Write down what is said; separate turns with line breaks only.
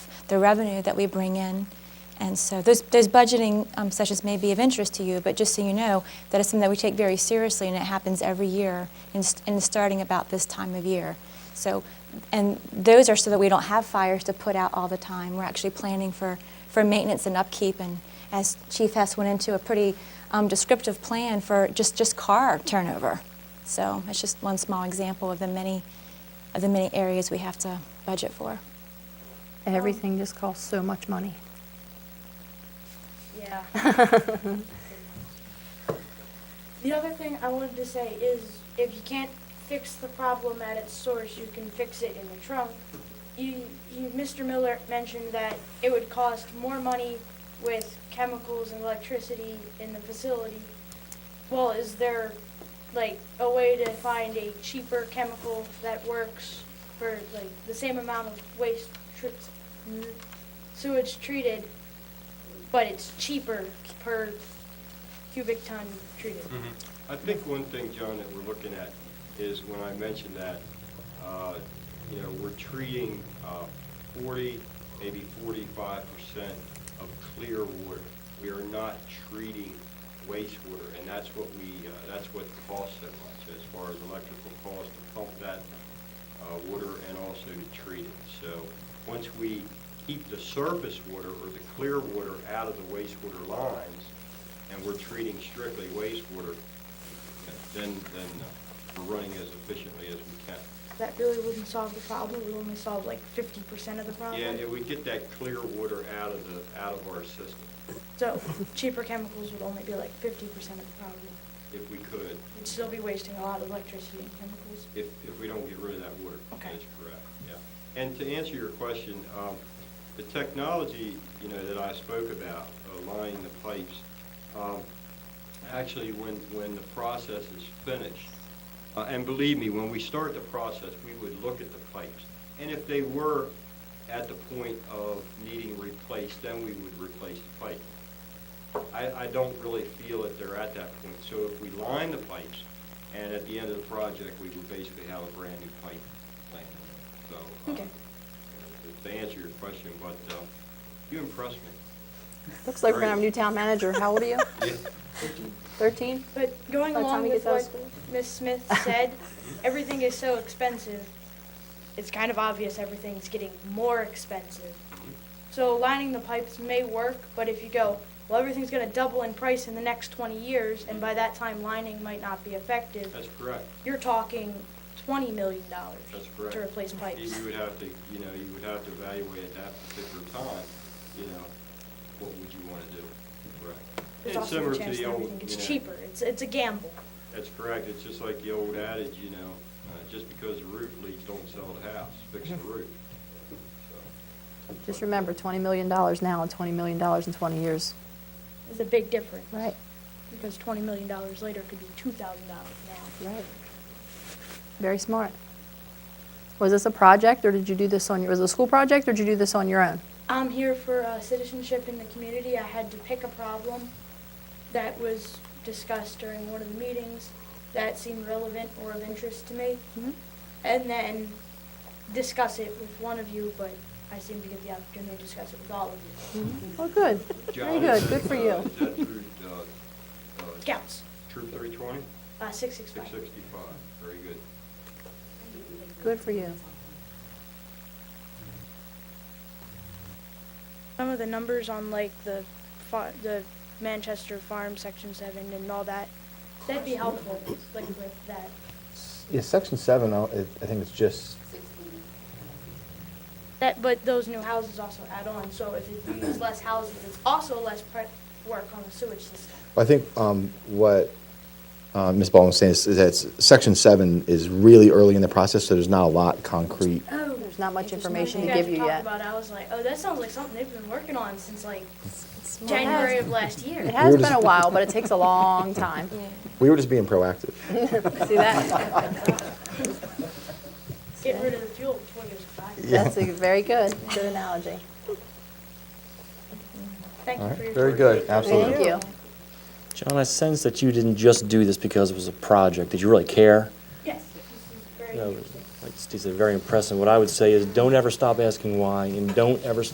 the revenue that we bring in. And so those, those budgeting um, sessions may be of interest to you, but just so you know, that is something that we take very seriously, and it happens every year, and, st- and starting about this time of year. So, and those are so that we don't have fires to put out all the time. We're actually planning for, for maintenance and upkeep, and as Chief Hess went into a pretty um, descriptive plan for just, just car turnover. So that's just one small example of the many, of the many areas we have to budget for.
Everything just costs so much money.
Yeah. the other thing I wanted to say is if you can't fix the problem at its source, you can fix it in the trunk. You, you, Mr. Miller mentioned that it would cost more money with chemicals and electricity in the facility. Well, is there like a way to find a cheaper chemical that works for like the same amount of waste tr- sewage treated but it's cheaper per cubic ton treated.
I think one thing, John, that we're looking at is when I mentioned that, uh, you know, we're treating uh, 40, maybe 45% of clear water. We are not treating wastewater, and that's what we, uh, that's what costs so much as far as electrical cost to pump that uh, water and also to treat it. So once we keep the surface water or the clear water out of the wastewater lines, and we're treating strictly wastewater, then, then uh, we're running as efficiently as we can.
That really wouldn't solve the problem, we only solve like fifty percent of the problem.
Yeah, and we get that clear water out of the, out of our system,
So cheaper chemicals would only be like fifty percent of the problem.
if we could,
We'd still be wasting a lot of electricity and chemicals.
if, if we don't get rid of that water.
Okay.
That's correct, yeah. And to answer your question, um, the technology, you know, that I spoke about, uh, lining the pipes, um, actually, when, when the process is finished, uh, and believe me, when we start the process, we would look at the pipes. And if they were at the point of needing replaced, then we would replace the pipe. I, I don't really feel that they're at that point. So if we line the pipes, and at the end of the project, we would basically have a brand-new pipe laying there. So, uh,
Okay.
to answer your question, but uh, you impressed me.
Looks like we're gonna have a new town manager. How old are you? Thirteen?
But going
By the time
along
you
with
get out of
what Ms. Smith said, everything is so expensive, it's kind of obvious everything's getting more expensive. So lining the pipes may work, but if you go, well, everything's gonna double in price in the next twenty years, and by that time lining might not be effective,
That's correct.
you're talking twenty million dollars
That's correct.
to replace
You
pipes.
you would have to, you know, you would have to evaluate at that particular time, you know, what would you want to do? Correct.
There's
It's
also
similar
a
to
chance
the
that
old,
everything gets
you know,
cheaper, it's, it's a gamble.
That's correct. It's just like the old adage, you know, uh, just because the roof leaks, don't sell the house, fix the roof. So,
Just
but, uh,
remember, twenty million dollars now and twenty million dollars in twenty years.
It's a big difference.
Right,
Because twenty million dollars later could be two thousand dollars now.
right. Very smart. Was this a project, or did you do this on, your? was it a school project, or did you do this on your own?
I'm here for uh, citizenship in the community. I had to pick a problem that was discussed during one of the meetings that seemed relevant or of interest to me,
Mhm.
and then discuss it with one of you, but I seem to get the opportunity to discuss it with all of you.
Oh, good. Very
John,
good,
is
good
that,
for
uh,
you.
Is that through, uh, uh,
Scouts,
Troop 320,
uh, 665.
665? Very good.
Good for you.
Some of the numbers on like the, fa- the Manchester Farm Section 7 and all that, that'd be helpful, like with that.
Yeah, section seven, I'll- it- I think it's just,
That, but those new houses also add on, so if you use less houses, it's also less prep work on the sewage system.
I think um, what uh, Ms. Baldwin was saying is is that s- section seven is really early in the process, so there's not a lot concrete.
Oh.
There's not much information
You
to
guys
give
were
you
talking
yet.
about it, I was like, oh, that sounds like something they've been working on since like January of last
It
year.
has
We're
been
just-
a while, but it takes a long time.
Yeah.
We were just being proactive.
See that?
Get rid of the fuel before it goes expired.
That's a very good, good analogy.
Thank you
All right,
for your.
very good, absolutely.
Thank you.
John, I sense that you didn't just do this because it was a project, that you really care.
Yes, this is very
You know,
interesting.
like Steve said, very impressive. What I would say is, don't ever stop asking why, and don't ever